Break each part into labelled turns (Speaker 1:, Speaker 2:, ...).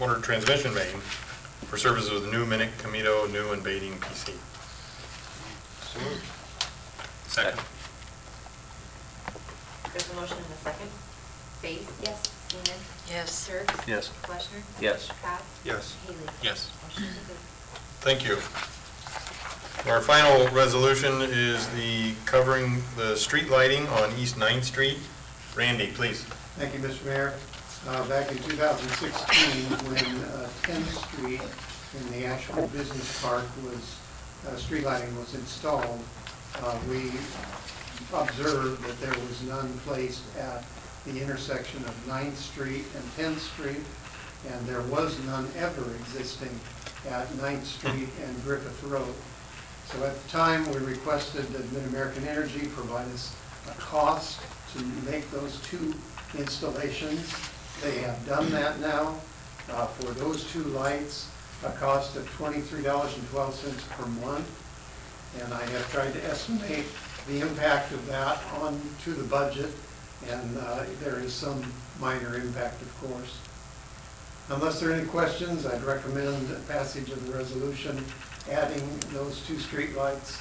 Speaker 1: water transmission main for services with New Minute, Camito, New, and Bating PC. Second.
Speaker 2: There's a motion and a second. Faith? Yes. Seaman?
Speaker 3: Yes.
Speaker 2: Dirk?
Speaker 4: Yes.
Speaker 2: Fleischner?
Speaker 4: Yes.
Speaker 2: Cobb?
Speaker 5: Yes.
Speaker 2: Haley?
Speaker 1: Yes.
Speaker 2: Motion is approved.
Speaker 1: Thank you. Our final resolution is the covering the street lighting on East Ninth Street. Randy, please.
Speaker 6: Thank you, Mr. Mayor. Uh, Back in 2016, when uh, 10th Street in the Asheville Business Park was, uh, street lighting was installed, uh, we observed that there was none placed at the intersection of 9th Street and 10th Street, and there was none ever existing at 9th Street and Griffith Road. So at the time, we requested that Mid-American Energy provide us a cost to make those two installations. They have done that now uh, for those two lights, a cost of twenty-three dollars and twelve cents per month. And I have tried to estimate the impact of that on to the budget, and uh, there is some minor impact, of course. Unless there are any questions, I'd recommend passage of the resolution adding those two streetlights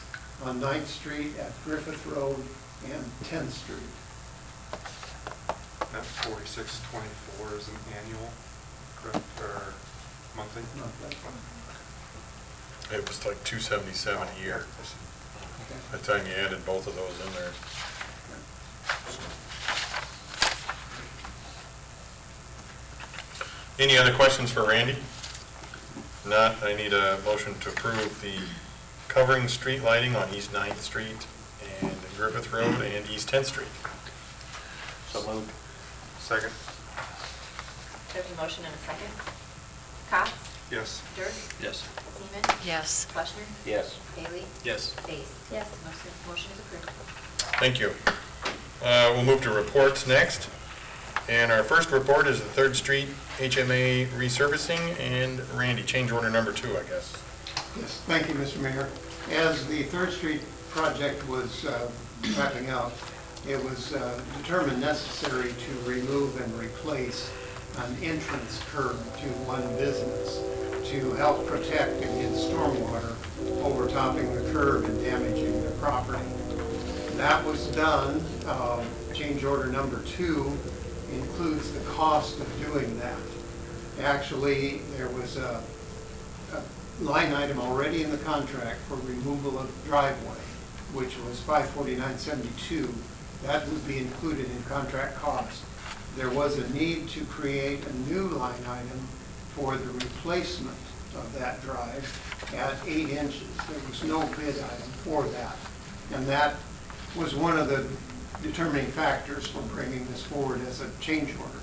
Speaker 6: on 9th Street at Griffith Road and 10th Street.
Speaker 5: That forty-six twenty-four is an annual, correct, or monthly?
Speaker 6: Not that one.
Speaker 1: It was like 277 a year, by the time you added both of those in there. Any other questions for Randy? Not, I need a motion to approve the covering street lighting on East Ninth Street and Griffith Road and East Tenth Street.
Speaker 4: So moved.
Speaker 5: Second,
Speaker 2: There's a motion and a second. Cobb?
Speaker 5: yes.
Speaker 2: Dirk?
Speaker 4: Yes.
Speaker 2: Seaman?
Speaker 3: Yes.
Speaker 2: Fleischner?
Speaker 4: Yes.
Speaker 2: Haley?
Speaker 4: Yes.
Speaker 2: Faith? Yes. Motion is approved.
Speaker 1: Thank you. Uh, We'll move to reports next. And our first report is the Third Street HMA resurfacing, and Randy, change order number two, I guess.
Speaker 6: Yes, thank you, Mr. Mayor. As the Third Street project was uh, wrapping up, it was uh, determined necessary to remove and replace an entrance curb to one business to help protect against stormwater overtopping the curb and damaging the property. That was done. Um, Change order number two includes the cost of doing that. Actually, there was a a line item already in the contract for removal of driveway, which was 54972. That would be included in contract cost. There was a need to create a new line item for the replacement of that drive at eight inches. There was no bid item for that. And that was one of the determining factors for bringing this forward as a change order.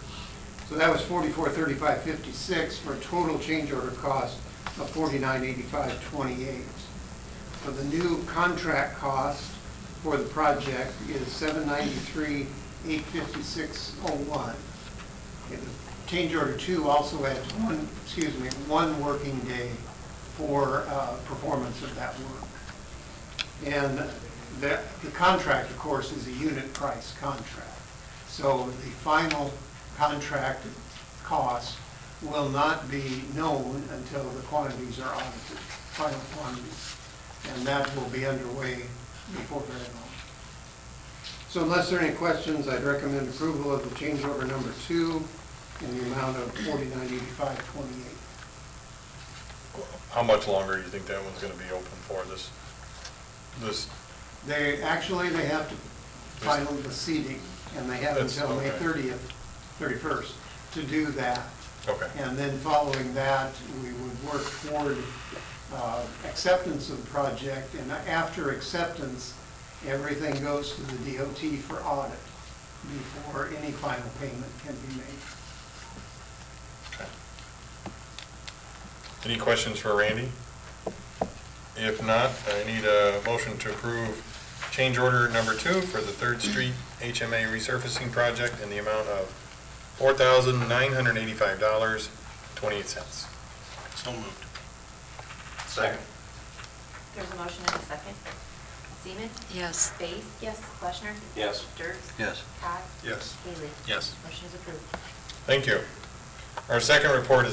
Speaker 6: So that was forty-four thirty-five fifty-six for a total change order cost of forty-nine eighty-five twenty-eight. So the new contract cost for the project is seven ninety-three eight fifty-six oh one. Change order two also adds one, excuse me, one working day for uh, performance of that work. And the, the contract, of course, is a unit price contract. So the final contract cost will not be known until the quantities are audited, final quantities. And that will be underway before very long. So unless there are any questions, I'd recommend approval of the change order number two in the amount of forty-nine eighty-five twenty-eight.
Speaker 1: How much longer do you think that one's gonna be open for, this, this,
Speaker 6: They, actually, they have to final the seating, and they have
Speaker 1: That's-
Speaker 6: until May
Speaker 1: okay.
Speaker 6: 30th, 31st, to do that.
Speaker 1: okay,
Speaker 6: And then following that, we would work toward uh, acceptance of the project, and after acceptance, everything goes to the DOT for audit before any final payment can be made.
Speaker 1: okay. Any questions for Randy? If not, I need a motion to approve change order number two for the Third Street HMA resurfacing project in the amount of four thousand nine hundred eighty-five dollars, twenty-eight cents.
Speaker 4: So moved.
Speaker 5: Second.
Speaker 2: There's a motion and a second. Seaman?
Speaker 3: Yes.
Speaker 2: Faith? Yes. Fleischner?
Speaker 4: Yes.
Speaker 2: Dirk?
Speaker 4: Yes.
Speaker 2: Cobb?
Speaker 5: Yes.
Speaker 2: Haley?
Speaker 4: Yes.
Speaker 2: Motion is approved.
Speaker 1: Thank you. Our second report is